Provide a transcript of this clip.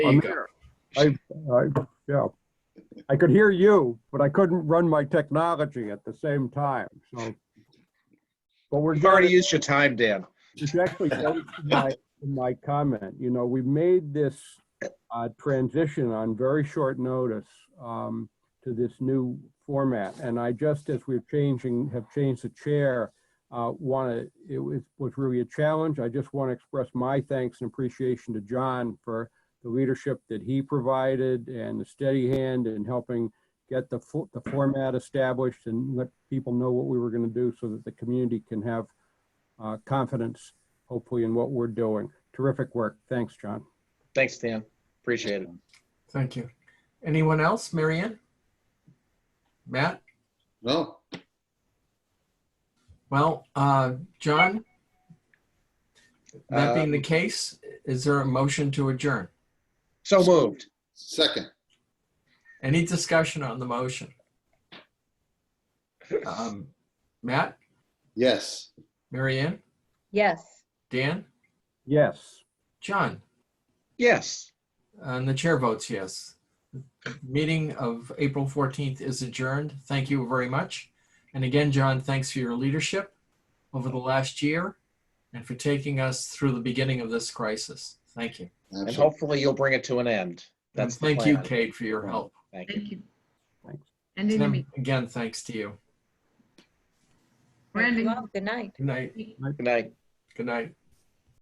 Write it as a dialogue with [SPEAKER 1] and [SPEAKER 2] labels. [SPEAKER 1] There
[SPEAKER 2] I'm
[SPEAKER 1] you go.
[SPEAKER 2] here. I, I, yeah. I could hear you, but I couldn't run my technology at the same time, so. But we're
[SPEAKER 1] You've already
[SPEAKER 2] getting-
[SPEAKER 1] used your time, Dan.
[SPEAKER 2] it's actually goes to my, to my comment, you know, we made this uh, transition on very short notice um, to this new format, and I just, as we're changing, have changed the chair, want to, it was, was really a challenge. I just want to express my thanks and appreciation to John for the leadership that he provided and the steady hand in helping get the, fo- the format established and let people know what we were going to do so that the community can have uh, confidence, hopefully, in what we're doing. Terrific work. Thanks, John.
[SPEAKER 1] Thanks, Dan. Appreciate it.
[SPEAKER 3] Thank you. Anyone else? Marianne? Matt?
[SPEAKER 4] No,
[SPEAKER 3] Well, uh, John? That being the
[SPEAKER 1] Um,
[SPEAKER 3] case, is there a motion to adjourn?
[SPEAKER 1] So moved.
[SPEAKER 4] second.
[SPEAKER 3] Any discussion on the motion? Um, Matt?
[SPEAKER 4] Yes.
[SPEAKER 3] Marianne?
[SPEAKER 5] Yes.
[SPEAKER 3] Dan?
[SPEAKER 2] Yes.
[SPEAKER 3] John?
[SPEAKER 1] Yes.
[SPEAKER 3] Uh, And the chair votes yes. Meeting of April 14th is adjourned. Thank you very much. And again, John, thanks for your leadership over the last year and for taking us through the beginning of this crisis. Thank you.
[SPEAKER 1] And
[SPEAKER 4] absolutely.
[SPEAKER 1] hopefully you'll bring it to an end.
[SPEAKER 3] And
[SPEAKER 1] That's the
[SPEAKER 3] thank you,
[SPEAKER 1] plan.
[SPEAKER 3] Kate, for your help.
[SPEAKER 1] Thank you.
[SPEAKER 6] Thank you.
[SPEAKER 2] Thanks.
[SPEAKER 6] Ending the
[SPEAKER 3] And
[SPEAKER 6] meeting.
[SPEAKER 3] Again, thanks to you.
[SPEAKER 6] We're ending.
[SPEAKER 5] Good night.
[SPEAKER 3] Good night.
[SPEAKER 1] Good night.
[SPEAKER 3] Good night.